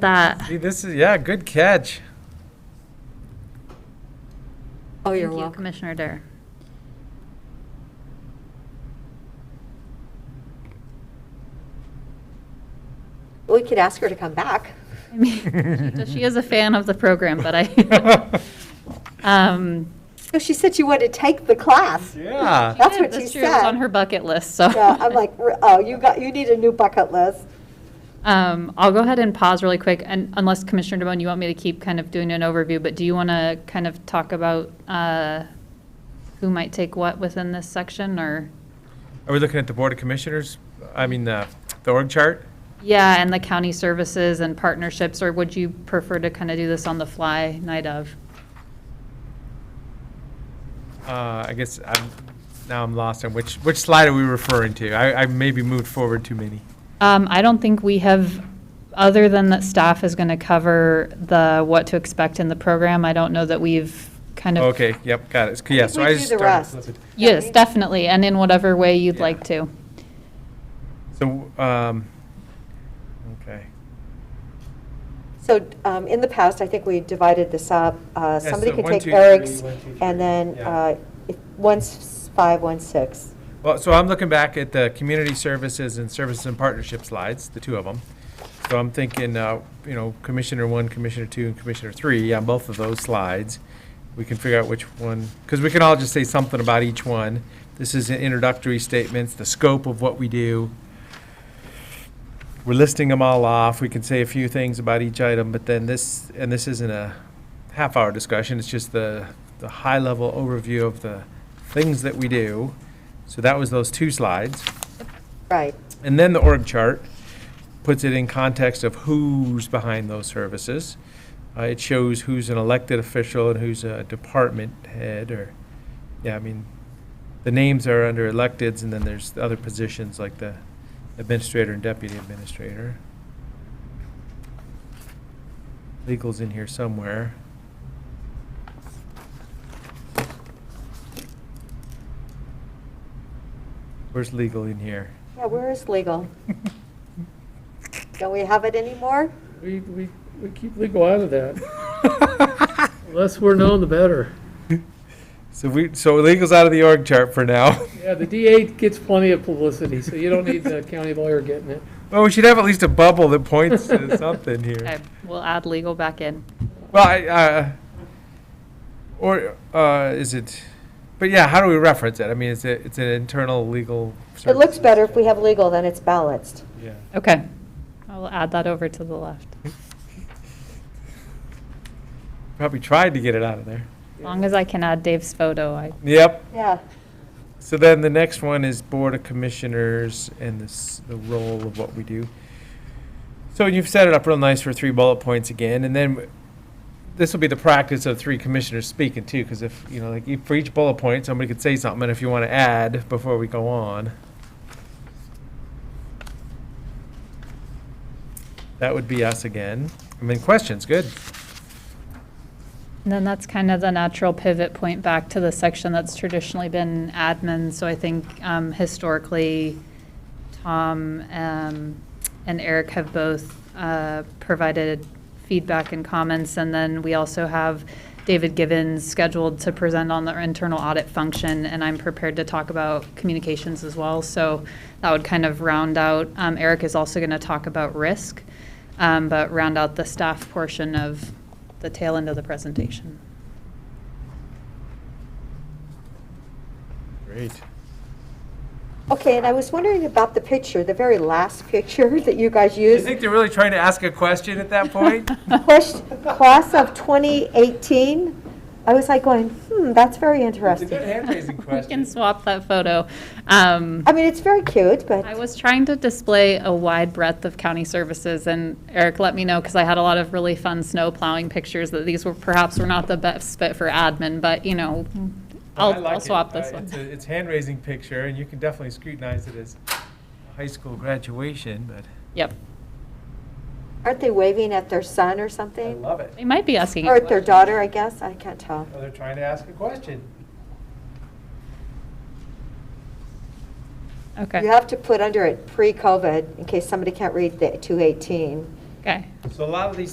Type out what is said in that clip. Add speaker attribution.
Speaker 1: that.
Speaker 2: Gee, this is, yeah, good catch.
Speaker 3: Oh, you're
Speaker 1: Thank you,
Speaker 3: welcome.
Speaker 1: Commissioner Dare.
Speaker 3: We could ask her to come back.
Speaker 1: I mean, She is a fan of the program, but I, um,
Speaker 3: So she said she wanted to take the class.
Speaker 2: Yeah.
Speaker 3: That's
Speaker 1: yeah,
Speaker 3: what she
Speaker 1: year was on
Speaker 3: said.
Speaker 1: her bucket list, so.
Speaker 3: Yeah, I'm like, "R- oh, you got, you need a new bucket list.
Speaker 1: Um, I'll go ahead and pause really quick, and unless Commissioner DeBonne, you want me to keep kind of doing an overview, but do you want to kind of talk about uh, who might take what within this section, or?
Speaker 2: Are we looking at the Board of Commissioners? I mean, the, the org chart?
Speaker 1: Yeah, and the county services and partnerships, or would you prefer to kind of do this on the fly night of?
Speaker 2: Uh, I guess I'm, now I'm lost on which, which slide are we referring to? I, I maybe moved forward too many.
Speaker 1: Um, I don't think we have, other than that staff is going to cover the what to expect in the program, I don't know that we've kind of.
Speaker 2: Okay, yep, got it. Yeah,
Speaker 3: think
Speaker 2: so
Speaker 3: we
Speaker 2: I
Speaker 3: do
Speaker 2: just
Speaker 3: the
Speaker 2: started.
Speaker 3: rest.
Speaker 2: flipping.
Speaker 1: Yes, definitely, and in whatever way you'd
Speaker 2: Yeah.
Speaker 1: like to.
Speaker 2: So, um, okay.
Speaker 3: So um, in the past, I think we divided this up. Uh,
Speaker 2: Yeah,
Speaker 3: Somebody
Speaker 2: so
Speaker 3: could
Speaker 2: one,
Speaker 3: take
Speaker 2: two, three,
Speaker 3: Eric's,
Speaker 2: one, two, three,
Speaker 3: and then
Speaker 2: yeah.
Speaker 3: uh, if- one's five, one's six.
Speaker 2: Well, so I'm looking back at the community services and services and partnership slides, the two of them. So I'm thinking, uh, you know, Commissioner one, Commissioner two, and Commissioner three, on both of those slides. We can figure out which one, because we can all just say something about each one. This is introductory statements, the scope of what we do. We're listing them all off. We can say a few things about each item, but then this, and this isn't a half-hour discussion, it's just the, the high-level overview of the things that we do. So that was those two slides.
Speaker 3: Right.
Speaker 2: And then the org chart puts it in context of who's behind those services. Uh, it shows who's an elected official and who's a department head or, yeah, I mean, the names are under electeds and then there's the other positions like the administrator and deputy administrator. Legal's in here somewhere. Where's legal in here?
Speaker 3: Yeah, where is legal? Don't we have it anymore?
Speaker 4: We, we, we keep legal out of that. The Less we're known, the better.
Speaker 2: So we, so legal's out of the org chart for now.
Speaker 4: Yeah, the DA gets plenty of publicity, so you don't need the county lawyer getting it.
Speaker 2: Well, we should have at least a bubble that points to something
Speaker 1: Okay,
Speaker 2: here.
Speaker 1: we'll add legal back in.
Speaker 2: Well, I, uh, or, uh, is it, but yeah, how do we reference it? I mean, it's a, it's an internal legal.
Speaker 3: It looks
Speaker 2: services
Speaker 3: better if we
Speaker 2: chart.
Speaker 3: have legal, then it's balanced.
Speaker 2: Yeah.
Speaker 1: Okay, I'll add that over to the left.
Speaker 2: Mm-hmm. Probably tried to get it out of there.
Speaker 1: As long as I can add Dave's photo, I,
Speaker 2: Yep.
Speaker 3: Yeah.
Speaker 2: So then the next one is Board of Commissioners and this, the role of what we do. So you've set it up real nice for three bullet points again, and then this will be the practice of three commissioners speaking too, because if, you know, like, e- for each bullet point, somebody could say something, and if you want to add before we go on. That would be us again. I mean, questions, good.
Speaker 1: and then that's kind of the natural pivot point back to the section that's traditionally been admin. So I think um, historically, Tom um, and Eric have both uh, provided feedback and comments. And then we also have David Givens scheduled to present on the internal audit function, and I'm prepared to talk about communications as well. So that would kind of round out, um, Eric is also going to talk about risk, um, but round out the staff portion of the tail end of the presentation.
Speaker 2: Great.
Speaker 3: Okay, and I was wondering about the picture, the very last picture that you guys
Speaker 2: You
Speaker 3: used.
Speaker 2: think they're really trying to ask a question at that point?
Speaker 3: Question, class of 2018, I was like going, hmm, that's very interesting.
Speaker 2: hand-raising
Speaker 1: We can swap that photo. Um,
Speaker 3: I mean, it's very cute, but.
Speaker 1: I was trying to display a wide breadth of county services, and Eric let me know, because I had a lot of really fun snow plowing pictures, that these were perhaps were not the best fit for admin, but, you know,
Speaker 2: Mm. I
Speaker 1: I'll,
Speaker 2: like
Speaker 1: I'll
Speaker 2: it.
Speaker 1: swap
Speaker 2: Uh,
Speaker 1: this
Speaker 2: It's,
Speaker 1: one.
Speaker 2: a- it's hand-raising picture, and you can definitely scrutinize it as a high school graduation, but
Speaker 1: Yep.
Speaker 3: Aren't they waving at their son or
Speaker 2: I
Speaker 3: something?
Speaker 2: love it.
Speaker 1: They might be asking.
Speaker 3: Or
Speaker 1: a
Speaker 3: at their
Speaker 1: question.
Speaker 3: daughter, I guess, I can't tell.
Speaker 2: Oh, they're trying to ask a question.
Speaker 1: Okay.
Speaker 3: You have to put under it pre-COVID, in case somebody can't read the 218.
Speaker 1: Okay.
Speaker 2: So a lot of these